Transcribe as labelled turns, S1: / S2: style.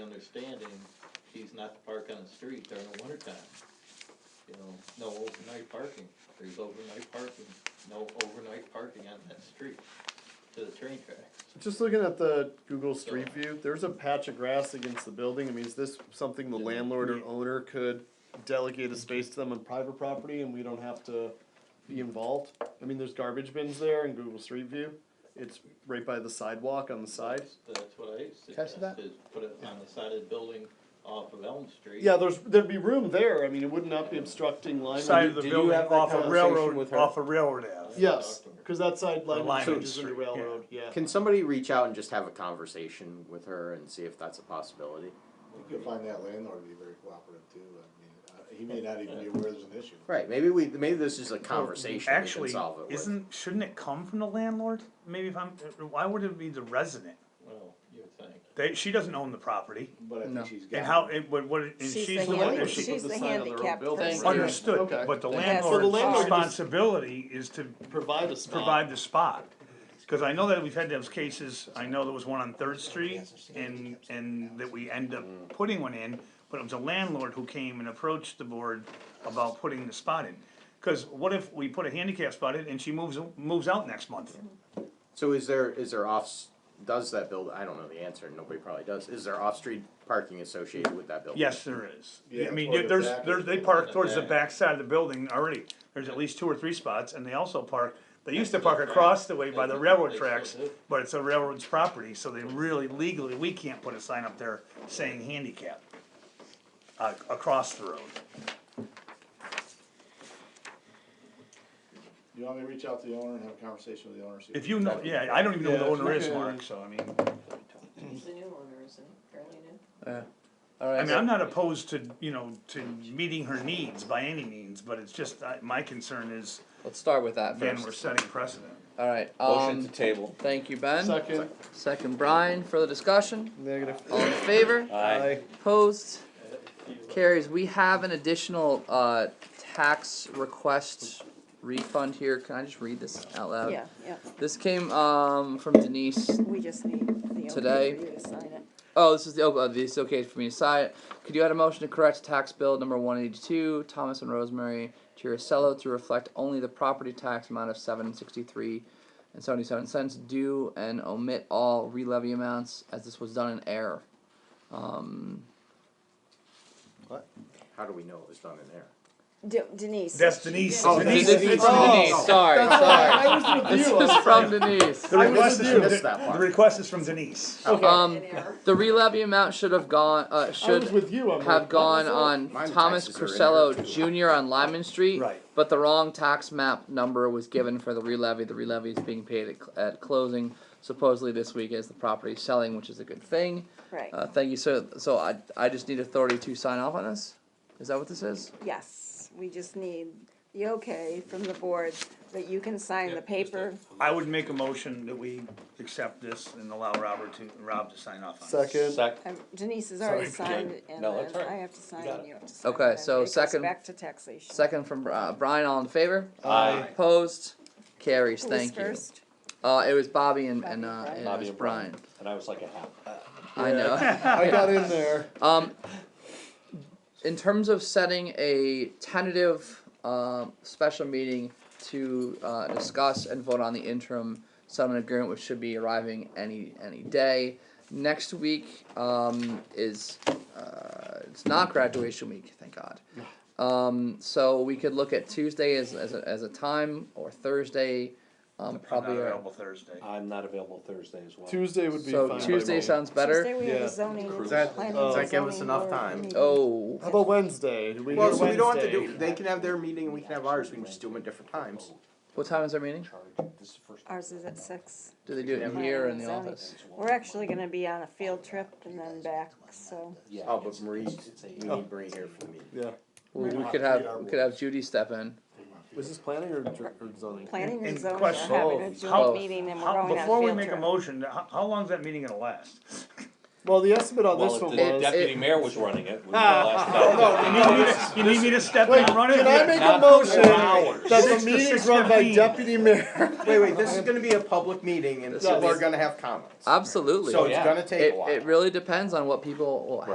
S1: understanding, he's not to park on the street during the winter time. You know, no overnight parking, there's overnight parking, no overnight parking on that street to the train tracks.
S2: Just looking at the Google Street View, there's a patch of grass against the building. I mean, is this something the landlord or owner could delegate a space to them on private property and we don't have to be involved? I mean, there's garbage bins there in Google Street View. It's right by the sidewalk on the side.
S1: That's what I
S3: I see that?
S1: suggested, put it on the side of the building off of Elm Street.
S2: Yeah, there's, there'd be room there. I mean, it would not be obstructing line.
S4: Side of the
S5: Did you
S4: building
S5: have that
S4: off of
S5: conversation with
S4: railroad,
S5: her?
S4: off of railroad ave.
S2: Yes, cause that side line
S4: Line of
S2: changes
S4: the
S2: into
S4: street, yeah.
S2: railroad, yeah.
S5: Can somebody reach out and just have a conversation with her and see if that's a possibility?
S6: You can find that landlord to be very cooperative too, I mean, uh, he may not even be aware there's an issue.
S5: Right, maybe we, maybe this is a conversation we can
S4: Actually,
S5: solve it with.
S4: isn't, shouldn't it come from the landlord? Maybe if I'm, why would it be the resident?
S1: Well, you would think.
S4: They, she doesn't own the property,
S6: But I
S3: No.
S6: think she's got.
S4: and how, and what, what, and
S7: She's
S4: she's
S7: the
S4: the one,
S7: handicap-
S4: that
S2: she
S4: she,
S7: she's
S2: put the
S7: the
S2: sign on their own
S7: handicapped
S2: building.
S7: person.
S4: understood,
S2: Okay.
S4: but the
S7: That's- So the
S4: landlord's
S2: landlord just-
S4: responsibility is to
S2: Provide a spot.
S4: provide the spot. Cause I know that we've had those cases, I know there was one on Third Street and, and that we end up putting one in, but it was a landlord who came and approached the board about putting the spot in. Cause what if we put a handicap spot in and she moves, moves out next month?
S5: So is there, is there off, does that build, I don't know the answer, nobody probably does, is there off-street parking associated with that building?
S4: Yes, there is.
S6: Yeah,
S4: I mean,
S6: toward the
S4: there's,
S6: back.
S4: there's, they park towards the
S1: back.
S4: back side of the building already, there's at least two or three spots, and they also park, they used to park across the way by the railroad
S1: They still
S4: tracks,
S1: do.
S4: but it's a railroad's property, so they really legally, we can't put a sign up there saying handicap. Uh, across the road,
S6: You want me to reach out to the owner and have a conversation with the owner? see
S4: if you know, yeah, I don't even know who the
S2: Yeah, it's
S4: owner is,
S2: okay.
S4: Mark, so I mean,
S7: He's the new owner, isn't he? Fairly new.
S3: All
S4: I
S3: right,
S4: mean, I'm
S3: so-
S4: not opposed to, you know, to meeting her needs by any means, but it's just, I, my concern is,
S3: let's start with that
S4: again, we're
S3: first.
S4: setting precedent.
S3: All right,
S5: Motion to
S3: um,
S5: table.
S3: thank you, Ben.
S2: Second,
S3: Second, Brian, for the discussion.
S2: negative.
S3: All in favor?
S2: Aye.
S3: Opposed?
S1: You would-
S3: Carries, we have an additional, uh, tax request refund here. Can I just read this out loud?
S7: Yeah, yeah.
S3: This came, um, from Denise
S7: We just need the. old
S3: Today.
S7: people to sign it.
S3: Oh, this is the, oh, uh, this is okay for me to sign. it. Could you add a motion to correct tax bill number one eighty-two, Thomas and Rosemary Tiricello to reflect only the property tax amount of seven sixty-three and seventy-seven cents due and omit all re-levy amounts as this was done in error? Um,
S5: How do we know it was done in there?
S7: De- Denise.
S4: That's Denise,
S5: Oh,
S4: Denise,
S3: this is
S4: it's
S3: from
S4: Denise.
S3: Denise, sorry, sorry.
S2: I was with
S3: This
S2: you.
S3: is from Denise.
S4: The
S5: I
S4: request
S5: must
S4: is
S5: have
S4: from,
S5: missed
S4: De-
S5: that
S4: the
S5: part.
S4: request is from Denise.
S3: Um,
S7: An error.
S3: the re-levy amount should have gone, uh,
S2: I was
S3: should
S2: with you. I'm
S3: have
S2: like,
S3: gone
S2: what was
S3: on
S5: Mine
S3: Thomas
S5: taxes are in
S3: Crusello
S5: there,
S3: Jr. on Lyman Street.
S4: Right.
S3: But the wrong tax map number was given for the re-levy. The re-levy is being paid at, cl- at closing supposedly this week as the property is selling, which is a good thing.
S7: Right,
S3: Uh, thank you, so, so I, I just need authority to sign off on this? Is that what this is?
S7: yes. We just need the okay from the board that you can sign the
S1: Yep, just
S7: paper.
S4: I would make a motion that we accept this and allow Robert to, Rob to sign off on it.
S2: Second.
S7: Um, Denise has already
S1: Sorry,
S7: signed it and
S5: No, that's
S7: then
S5: all right.
S7: I have to sign
S1: got
S7: and
S1: it.
S7: you have to sign.
S3: Okay,
S7: and then
S3: so
S7: it goes
S3: second-
S7: Back to taxation.
S3: Second from Bri- uh, Brian, all in favor?
S1: Aye.
S3: Opposed? Carries,
S7: Who was
S3: thank you.
S7: first?
S3: Uh, it was Bobby and,
S7: Bobby and
S3: and, uh,
S7: Brian.
S3: and it
S8: Bobby
S3: was
S8: and
S3: Brian.
S8: And I was like a half.
S3: I know.
S2: I got in there.
S3: Um, in terms of setting a tentative um, special meeting to uh, discuss and vote on the interim settlement agreement, which should be arriving any any day. Next week um, is uh, it's not graduation week, thank God. Um, so we could look at Tuesday as as a, as a time or Thursday, um,
S4: I'm not
S3: probably.
S4: available Thursday.
S8: I'm not available Thursday as well.
S2: Tuesday would be fine.
S3: so
S2: by
S3: Tuesday
S2: me.
S3: sounds better.
S7: Tuesday we have
S2: Yeah.
S7: a zoning.
S5: Does
S8: that-
S7: planning
S2: does
S7: and
S5: that give us
S7: zoning
S5: enough
S7: board
S5: time?
S7: meeting.
S3: Oh.
S2: How about Wednesday? Do we
S5: Well,
S2: do
S5: so we don't have to
S2: Wednesday?
S5: do, they can have their meeting and we can have ours, we can just do them at different times.
S3: What time is our meeting?
S8: Charge. This is the first.
S7: Ours is at six.
S3: Do they do it in here or in the office?
S7: We're actually gonna be on a field trip and then back, so.
S8: Yeah.
S5: Oh, but Marie,
S8: It's
S5: we
S8: a.
S5: need Marie here for the meeting.
S2: Yeah.
S3: We could have, we could have Judy step in.
S2: Was this planning or, dr- or zoning?
S7: Planning and
S4: And
S7: zoning are
S4: question- Oh,
S7: having a
S3: How-
S7: joint meeting and we're
S4: How,
S7: going on a
S4: before we
S7: field
S4: make a
S7: trip.
S4: motion, how, how long's that meeting gonna last?
S2: Well, the estimate on
S8: Well,
S2: this
S8: if
S2: one
S8: the
S3: It's-
S2: was.
S8: deputy
S3: it-
S8: mayor was running it, we would have lasted
S4: You need me to, you need me to step in
S2: Wait,
S4: and run it?
S2: can I make a
S8: Not
S2: motion
S8: two hours.
S2: that
S4: Six
S2: the
S4: to
S2: meeting's run by
S4: 6:15.
S2: deputy mayor?
S5: Wait, wait, this is gonna be a public meeting and
S3: This
S5: people
S2: is-
S5: are gonna have comments.
S3: Absolutely.
S5: So it's
S8: Yeah.
S5: gonna take a
S3: It,
S5: while.
S3: it really depends on what people will